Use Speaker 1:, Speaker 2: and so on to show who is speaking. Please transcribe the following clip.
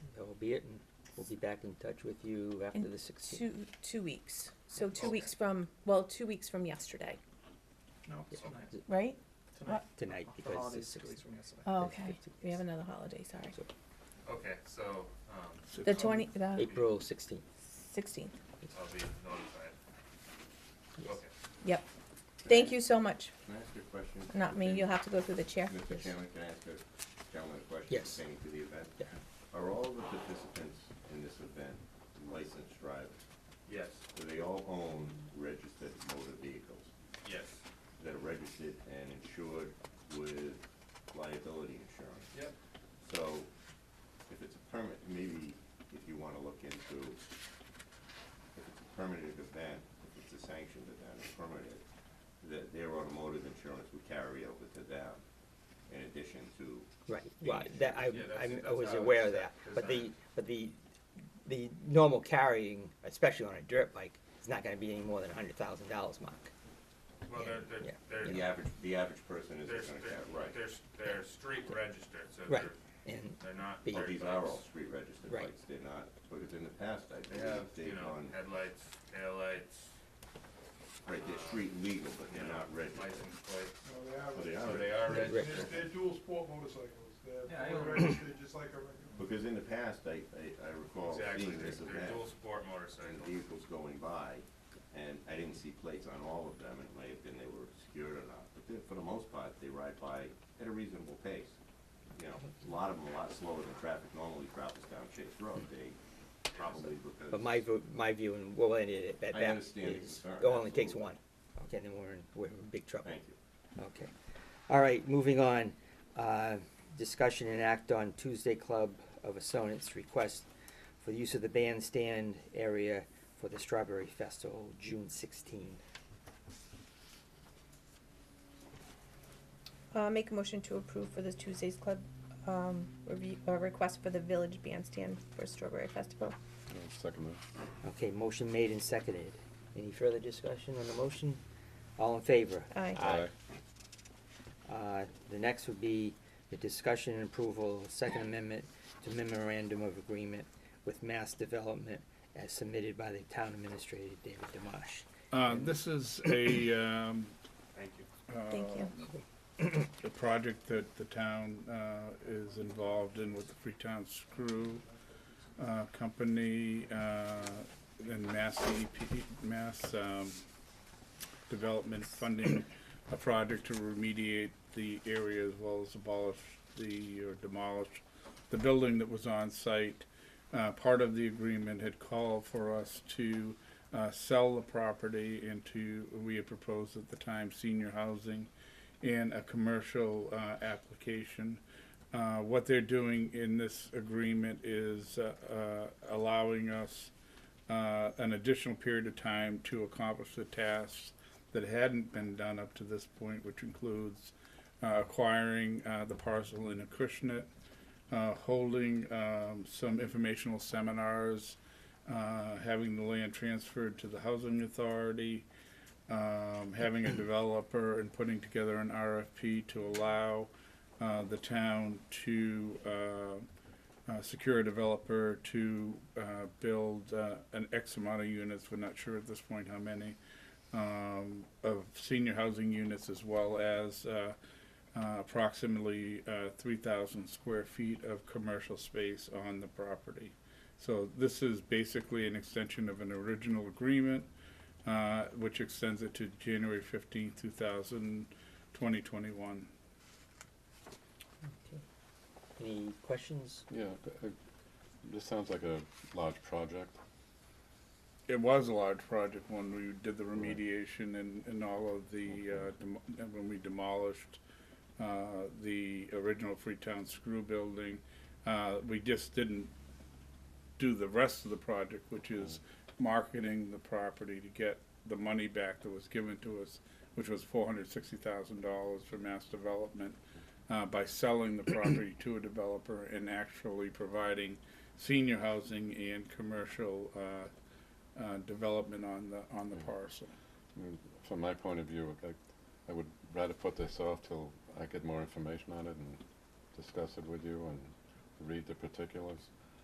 Speaker 1: be it, and we'll be back in touch with you after
Speaker 2: In
Speaker 1: the sixteenth.
Speaker 2: Two, two weeks. So two
Speaker 3: Okay.
Speaker 2: weeks from, well, two weeks from yesterday,
Speaker 3: No, tonight,
Speaker 2: right?
Speaker 3: tonight.
Speaker 1: Tonight,
Speaker 3: The
Speaker 1: because
Speaker 3: holidays
Speaker 1: it's
Speaker 3: two
Speaker 1: six-
Speaker 3: weeks from yesterday.
Speaker 2: Oh,
Speaker 1: Yes,
Speaker 2: okay.
Speaker 1: 15
Speaker 2: We have
Speaker 1: days.
Speaker 2: another holiday, sorry.
Speaker 1: So,
Speaker 4: Okay, so, um,
Speaker 2: The twenty, the
Speaker 1: April sixteenth,
Speaker 2: sixteenth.
Speaker 4: I'll be notified.
Speaker 1: yes.
Speaker 4: Okay.
Speaker 2: Yep. Thank you so much.
Speaker 5: Can I ask you a question?
Speaker 2: Not me, you'll have to go through the chair.
Speaker 5: Mr. Chairman, can I ask a gentleman a question?
Speaker 1: Yes.
Speaker 5: Pertaining to the event?
Speaker 1: Yeah.
Speaker 5: Are all of the participants in this event licensed drivers?
Speaker 4: Yes,
Speaker 5: Do they all own registered motor vehicles
Speaker 4: yes,
Speaker 5: that are registered and insured with liability insurance?
Speaker 4: yep,
Speaker 5: So if it's a permit, maybe if you wanna look into, if it's a permitted event, if it's a sanctioned event, it's permitted, that their automotive insurance would carry over to them in addition to,
Speaker 1: Right, well, that, I,
Speaker 4: Yeah, that's-
Speaker 1: I'm- I
Speaker 4: that's
Speaker 1: was
Speaker 4: how
Speaker 1: aware
Speaker 4: it's
Speaker 1: of that, but the,
Speaker 4: designed.
Speaker 1: but the, the normal carrying, especially on a dirt bike, is not gonna be any more than a hundred thousand dollars, Mark.
Speaker 4: well, they're,
Speaker 1: Yeah.
Speaker 4: they're, they're,
Speaker 5: the average, the average person isn't
Speaker 4: they're,
Speaker 5: gonna carry,
Speaker 4: they're,
Speaker 5: right.
Speaker 4: they're, they're street registered, so
Speaker 1: Right,
Speaker 4: they're,
Speaker 1: and,
Speaker 4: they're not.
Speaker 1: Be-
Speaker 5: Well,
Speaker 4: dirt
Speaker 5: these are
Speaker 4: bikes.
Speaker 5: all street registered
Speaker 1: Right.
Speaker 5: bikes, they're not, because in the past, I
Speaker 4: They have,
Speaker 5: believe
Speaker 4: you
Speaker 5: they've
Speaker 4: know,
Speaker 5: gone,
Speaker 4: headlights, taillights,
Speaker 5: right, they're street legal, but
Speaker 4: you
Speaker 5: they're
Speaker 4: know,
Speaker 5: not registered.
Speaker 4: license plate,
Speaker 6: No, they are,
Speaker 5: But
Speaker 4: so
Speaker 5: they are,
Speaker 6: registered.
Speaker 4: they
Speaker 5: registered.
Speaker 4: are
Speaker 1: They're
Speaker 4: registered.
Speaker 6: they're, they're dual sport motorcycles,
Speaker 4: Yeah, I
Speaker 6: they're
Speaker 4: don't-
Speaker 6: registered just like a regular.
Speaker 5: because in the past, I, I, I recall
Speaker 4: Exactly,
Speaker 5: seeing
Speaker 4: they're,
Speaker 5: this event.
Speaker 4: they're dual sport motorcycles.
Speaker 5: and vehicles going by, and I didn't see plates on all of them, and it may have been they were obscured or not, but then, for the most part, they ride by at a reasonable pace. You know, a lot of them a lot slower than traffic normally travels down Chase Road, they probably because.
Speaker 1: but my, vo- my view, and we'll end it at
Speaker 5: I
Speaker 1: that,
Speaker 5: understand the
Speaker 1: is,
Speaker 5: concern,
Speaker 1: it only takes
Speaker 5: absolutely.
Speaker 1: one, okay, then we're in, we're in big trouble.
Speaker 5: Thank you.
Speaker 1: Okay. All right, moving on. Uh, Discussion and act on Tuesday Club of Assonance request for the use of the bandstand area for the Strawberry Festival, June 16.
Speaker 2: Uh, make a motion to approve for the Tuesdays Club, um, review, uh, request for the Village Bandstand for Strawberry Festival.
Speaker 7: Second that.
Speaker 1: Okay, motion made and seconded. Any further discussion on the motion? All in favor?
Speaker 2: Aye.
Speaker 7: Aye.
Speaker 1: Uh, The next would be the discussion and approval of Second Amendment to Memorandum of Agreement with Mass Development as submitted by the Town Administrator, David Dimash.
Speaker 8: Uh, This is a, um,
Speaker 5: Thank you.
Speaker 2: Thank you.
Speaker 8: a project that the town uh, is involved in with the Freetown Screw uh, Company uh, and Mass EP, Mass um, Development funding a project to remediate the area as well as abolish the, or demolish the building that was on site. Uh, Part of the agreement had called for us to uh, sell the property and to, we had proposed at the time, senior housing and a commercial uh, application. Uh, What they're doing in this agreement is uh, uh, allowing us uh, an additional period of time to accomplish the tasks that hadn't been done up to this point, which includes uh, acquiring uh, the parcel in Acushnet, uh, holding um, some informational seminars, uh, having the land transferred to the housing authority, um, having a developer and putting together an RFP to allow uh, the town to uh, uh, secure a developer to uh, build uh, an X amount of units, we're not sure at this point how many, um, of senior housing units as well as uh, uh, approximately uh, 3,000 square feet of commercial space on the property. So this is basically an extension of an original agreement uh, which extends it to January fifteenth, two thousand twenty twenty-one.
Speaker 1: Any questions?
Speaker 7: Yeah, th- uh, this sounds like a large project.
Speaker 8: It was a large project when we did the remediation and, and all of the, uh, demo- and when we demolished uh, the original Freetown Screw Building. Uh, We just didn't do the rest of the project, which is marketing the property to get the money back that was given to us, which was four hundred sixty thousand dollars for mass development, uh, by selling the property to a developer and actually providing senior housing and commercial, uh, uh, development on the, on the parcel.
Speaker 7: I mean, From my point of view, I, I would rather put this off till I get more information on it and discuss it with you and read the particulars.